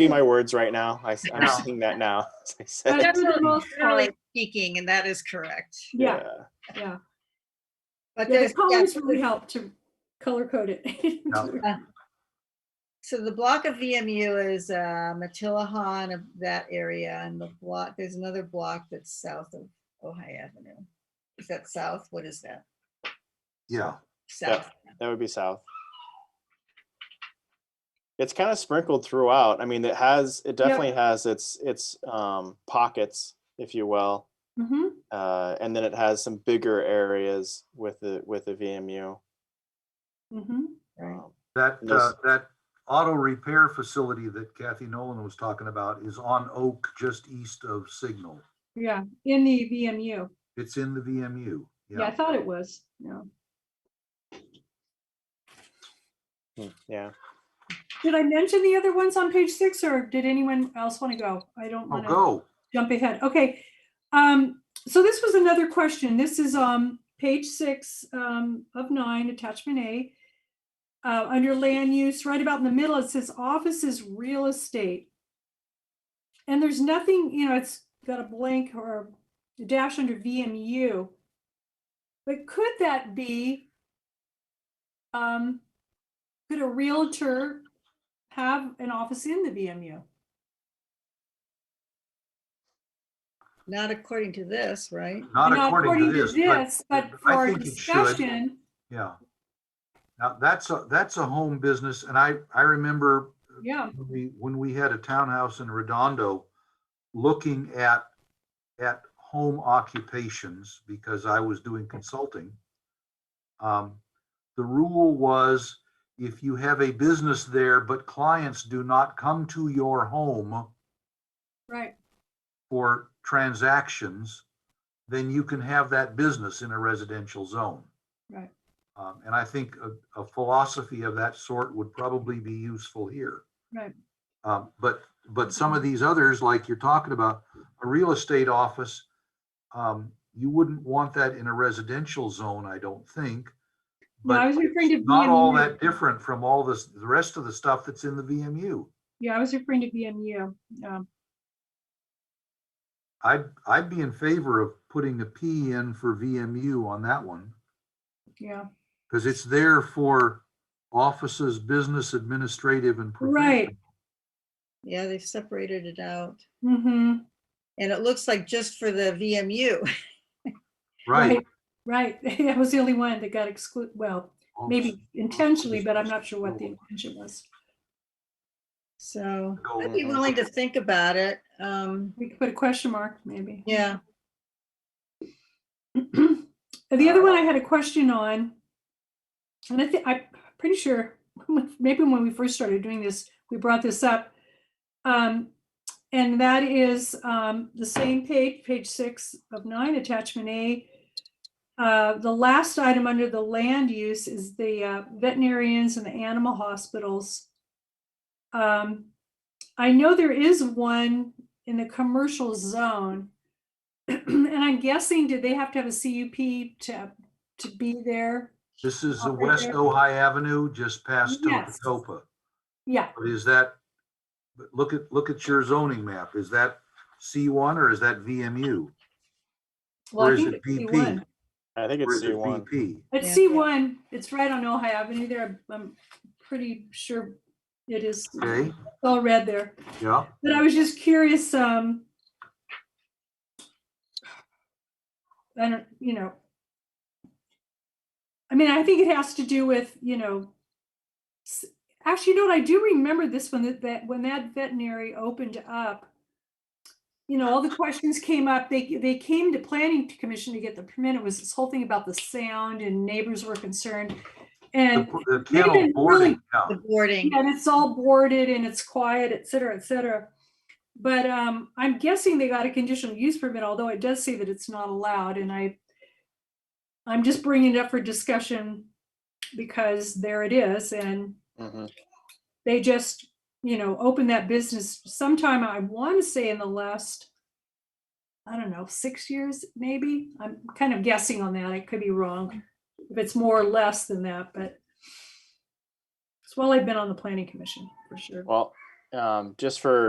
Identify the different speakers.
Speaker 1: be my words right now. I, I'm seeing that now. as I said.
Speaker 2: That's for the most
Speaker 3: Generally
Speaker 2: part.
Speaker 3: speaking, and that is correct.
Speaker 2: Yeah, yeah.
Speaker 3: But
Speaker 2: Yeah,
Speaker 3: there's,
Speaker 2: the colors really help to color code it.
Speaker 3: Yeah. so the block of VMU is uh, Matilahan of that area and the block, there's another block that's south of Ojai Avenue. Is that south? What is that?
Speaker 4: Yeah,
Speaker 3: South.
Speaker 1: That would be south. It's kind of sprinkled throughout. I mean, it has, it definitely has its, its um, pockets, if you will.
Speaker 3: mm-hmm,
Speaker 2: hmm
Speaker 1: Uh, and then it has some bigger areas with the, with the VMU.
Speaker 3: mm-hmm.
Speaker 2: hmm
Speaker 3: right?
Speaker 1: Um,
Speaker 4: that, uh,
Speaker 1: Yes.
Speaker 4: that auto repair facility that Kathy Nolan was talking about is on Oak, just east of Signal.
Speaker 2: Yeah, in the VMU.
Speaker 4: It's in the VMU.
Speaker 2: Yeah, I thought it was. Yeah.
Speaker 1: hmm, Yeah,
Speaker 2: Did I mention the other ones on page six or did anyone else want to go? I don't
Speaker 4: Oh,
Speaker 2: want to
Speaker 4: go.
Speaker 2: jump ahead. Okay. Um, so this was another question. This is um page six um of nine, attachment A. Uh, under land use, right about in the middle, it says offices, real estate. And there's nothing, you know, it's got a blank or a dash under VMU. But could that be? Um, could a realtor have an office in the VMU?
Speaker 3: Not according to this, right?
Speaker 4: Not according to this, but,
Speaker 2: But
Speaker 4: I
Speaker 2: for our
Speaker 4: think it should.
Speaker 2: discussion,
Speaker 4: yeah. Now, that's a, that's a home business, and I, I remember
Speaker 2: yeah,
Speaker 4: when we, when we had a townhouse in Redondo, looking at, at home occupations, because I was doing consulting. Um, the rule was if you have a business there, but clients do not come to your home
Speaker 2: right,
Speaker 4: for transactions, then you can have that business in a residential zone.
Speaker 2: Right.
Speaker 4: Um, and I think a, a philosophy of that sort would probably be useful here.
Speaker 2: Right. Mm-hmm.
Speaker 4: Um, but, but some of these others, like you're talking about, a real estate office, um, you wouldn't want that in a residential zone, I don't think.
Speaker 2: No,
Speaker 4: But
Speaker 2: I was referring to
Speaker 4: it's not all
Speaker 2: VMU.
Speaker 4: that different from all this, the rest of the stuff that's in the VMU.
Speaker 2: yeah, I was referring to VMU. um,
Speaker 4: I'd, I'd be in favor of putting a P in for VMU on that one,
Speaker 2: Yeah,
Speaker 4: because it's there for offices, business, administrative, and.
Speaker 2: Right.
Speaker 4: professional.
Speaker 3: Yeah, they've separated it out.
Speaker 2: mm-hmm,
Speaker 3: And it looks like just for the VMU.
Speaker 4: Right.
Speaker 2: Right. right, that was the only one that got excluded, well, maybe intentionally, but I'm not sure what the intention was.
Speaker 3: So
Speaker 4: Go
Speaker 3: I'd be
Speaker 1: on.
Speaker 3: willing to think about it. Um,
Speaker 2: We could put a question mark, maybe.
Speaker 3: yeah,
Speaker 2: And The other one I had a question on, and I think, I'm pretty sure, maybe when we first started doing this, we brought this up. Um, and that is, um, the same page, page six of nine, attachment A. Uh, the last item under the land use is the uh, veterinarians and the animal hospitals. Um, I know there is one in the commercial zone. And I'm guessing, did they have to have a CUP to, to be there?
Speaker 4: This is the
Speaker 2: Over
Speaker 4: West
Speaker 2: there.
Speaker 4: Ojai Avenue, just past
Speaker 2: Yes.
Speaker 4: Topatopa.
Speaker 2: Yeah,
Speaker 4: But is that, but look at, look at your zoning map. Is that C1 or is that VMU?
Speaker 2: well,
Speaker 4: Or
Speaker 2: I
Speaker 4: is
Speaker 2: think
Speaker 4: it
Speaker 2: it's
Speaker 4: BP?
Speaker 2: C1.
Speaker 1: I think
Speaker 4: Or
Speaker 1: it's
Speaker 4: is it
Speaker 1: C1.
Speaker 4: VP?
Speaker 2: It's
Speaker 3: Yeah.
Speaker 2: C1, it's right on Ojai Avenue there, I'm pretty sure it is, it's
Speaker 4: Okay,
Speaker 2: all red there.
Speaker 4: yeah.
Speaker 2: But I was just curious, um, I don't, you know. I mean, I think it has to do with, you know, s- actually, you know what, I do remember this one, that, that when that veterinary opened up, you know, all the questions came up, they, they came to planning commission to get the permit, it was this whole thing about the sound and neighbors were concerned.
Speaker 4: The
Speaker 2: And
Speaker 4: the
Speaker 2: they've
Speaker 4: kennel
Speaker 2: been really-
Speaker 4: boarding, yeah.
Speaker 3: the boarding.
Speaker 2: and it's all boarded and it's quiet, et cetera, et cetera. But um, I'm guessing they got a conditional use permit, although it does say that it's not allowed and I, I'm just bringing it up for discussion because there it is and
Speaker 1: Mhm.
Speaker 2: they just, you know, opened that business sometime, I want to say in the last, I don't know, six years maybe? I'm kind of guessing on that. I could be wrong. If it's more or less than that, but it's while I've been on the planning commission, for sure.
Speaker 1: Well, um, just for